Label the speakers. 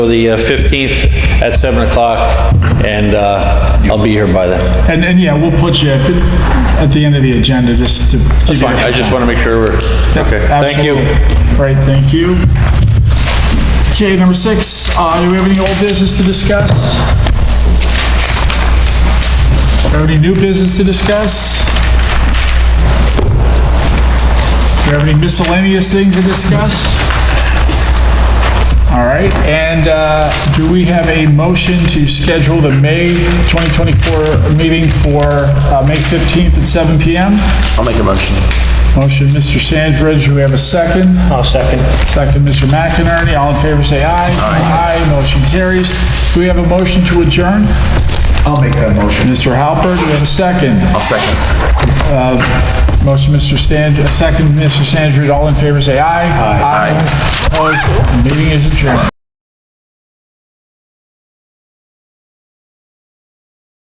Speaker 1: the uh, 15th at 7 o'clock, and uh, I'll be here by then.
Speaker 2: And, and yeah, we'll put you at at the end of the agenda, just to.
Speaker 1: That's fine. I just want to make sure we're, okay, thank you.
Speaker 2: Absolutely. Right, thank you. Okay, number six, uh, do we have any old business to discuss? Do we have any new business to discuss? Do we have any miscellaneous things to discuss? All right, and, uh, do we have a motion to schedule the May 2024 meeting for, uh, May 15th at 7 PM?
Speaker 3: I'll make a motion.
Speaker 2: Motion, Mr. Sandridge, we have a second.
Speaker 3: I'll second.
Speaker 2: Second, Mr. McInerney, all in favor, say aye. Aye. motion carries. Do we have a motion to adjourn?
Speaker 3: I'll make that motion.
Speaker 2: Mr. Halper, do we have a second?
Speaker 3: I'll second.
Speaker 2: Motion, Mr. Sand, uh, second, Mr. Sandridge, all in favor, say aye. Aye. Opposed, meeting is adjourned.